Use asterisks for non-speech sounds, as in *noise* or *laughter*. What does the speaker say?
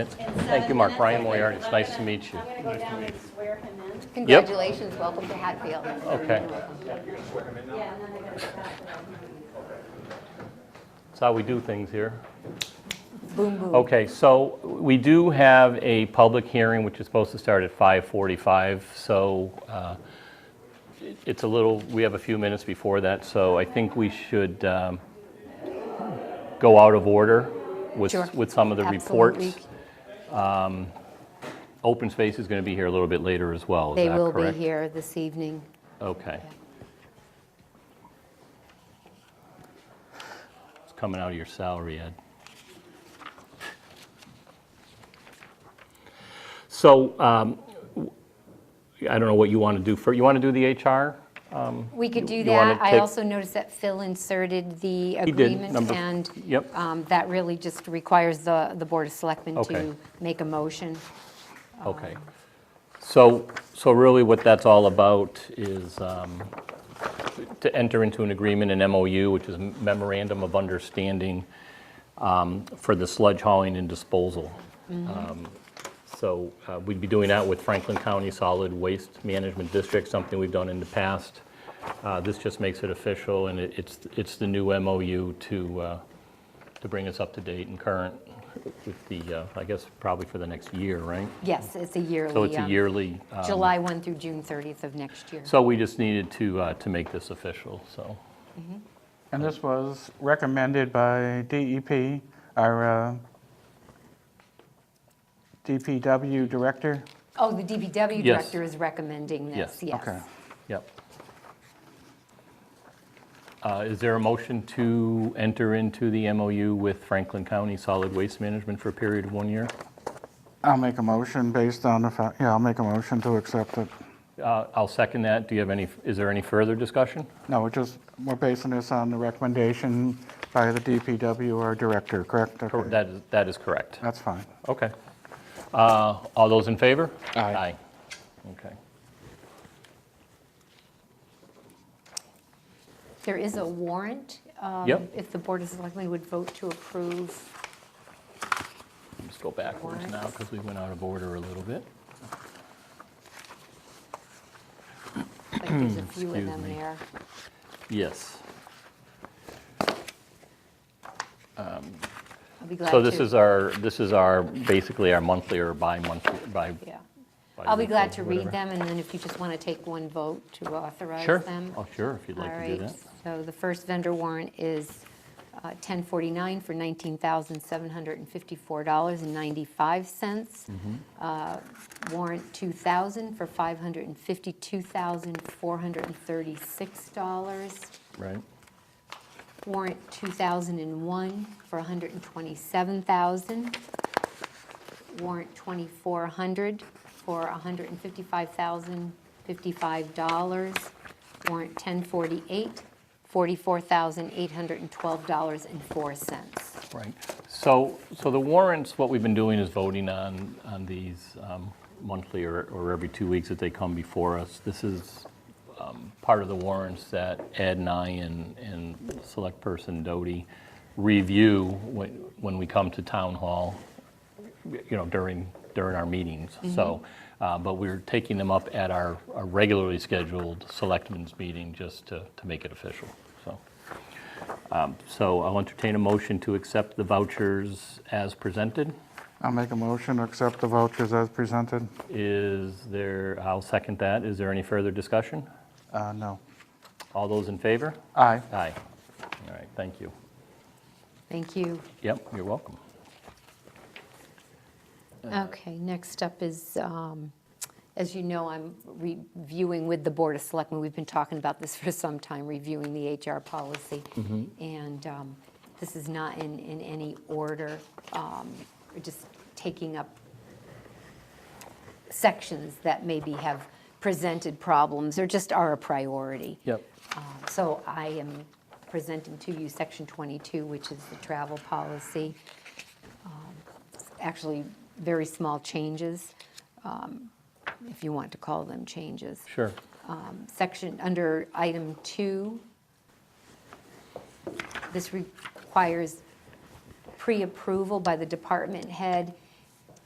Thank you, Mark. Ryan Moriarty, it's nice to meet you. I'm gonna go down and swear him in. Congratulations, welcome to Hatfield. Okay, Yeah, and then I gotta stop for him. that's how we do things here. Boom, boom. Okay, so we do have a public hearing, which is supposed to start at 5:45, so uh, it- it's a little, we have a few minutes before that, so I think we should um, go out of order with, Sure. with some of the reports. Absolutely. Open Space is going to be here a little bit later as well, is They that will be correct? here this evening. Okay. It's coming out of your salary, Ed. So, um, w- I don't know what you want to do for, you want to do the HR? We could do you wanna that. I take- also noticed that Phil inserted He the did, agreement. number- And yep. um, that really just requires the, the Board of Selectmen Okay. to make a motion. Okay. So, so really what that's all about is um, to enter into an agreement, an MOU, which is memorandum of understanding um, for the sludge hauling and disposal. Um, So uh, we'd be doing that with Franklin County Solid Waste Management District, something we've done in the past. Uh, This just makes it official, and it- it's, it's the new MOU to, uh, to bring us up to date and current with the, uh, I guess, probably for the next year, right? Yes, it's a yearly. So it's a um, yearly, uh, July 1 through June 30th of next year. so we just needed to, uh, to make this official, so, And this was recommended by DEP, our uh, DPW director. Oh, the DPW Yes. director is recommending Yes. this, yes. Okay. yep. Uh, Is there a motion to enter into the MOU with Franklin County Solid Waste Management for a period of one year? I'll make a motion based on the fact, yeah, I'll make a motion to accept it. Uh, I'll second that. Do you have any, is there any further discussion? No, we're just, we're basing this on the recommendation by the DPW, our director, correct? Cor- Okay. That is, that is correct. That's fine. Okay. Uh, All those in favor? Aye. Okay. There is a warrant. um, Yep. If the Board of Selectmen would vote to approve Let's go backwards now because we went out of order a little bit. *clears throat* Like, there's a few of Excuse them me. there. Yes. I'll be glad to. So this is our, this is our, basically our monthly or bi-monthly, bi. Yeah. I'll be glad to bi-weekly, read them, and then if you just want to take one vote to whatever. authorize Sure. them. Oh, sure, if you'd like to do All that. right, so the first vendor warrant is uh, 1049 for $19,754.95. Mm-hmm. Uh, Warrant 2000 for $552,436. Right, Warrant 2001 for 127,000. Warrant 2400 for $155,055. Warrant 1048, $44,812.04. right. So, so the warrants, what we've been doing is voting on, on these um, monthly or, or every two weeks that they come before us. This is um, part of the warrants that Ed and I and, and Select Person Doty review when, when we come to Town Hall you know, during, during our meetings. So, uh, but we're taking them up at our our regularly scheduled selectmen's meeting just to, to make it official, so. um, So I'll entertain a motion to accept the vouchers as presented. I'll make a motion to accept the vouchers as presented. Is there, I'll second that. Is there any further discussion? Uh, No. All those in favor? Aye. Aye. All right, thank you. Thank you. Yep, you're welcome. Okay, next up is, um, as you know, I'm reviewing with the Board of Selectmen, we've been talking about this *laughs* for some time, reviewing the HR policy. And um, this is not in, in any order, um, we're just taking up sections that maybe have presented problems or just are a priority. Yep. Um, So I am presenting to you Section 22, which is the travel policy. Um, it's Actually, very small changes, um, if you want to call them changes. Sure. Section, under item two, this requires pre-approval by the department head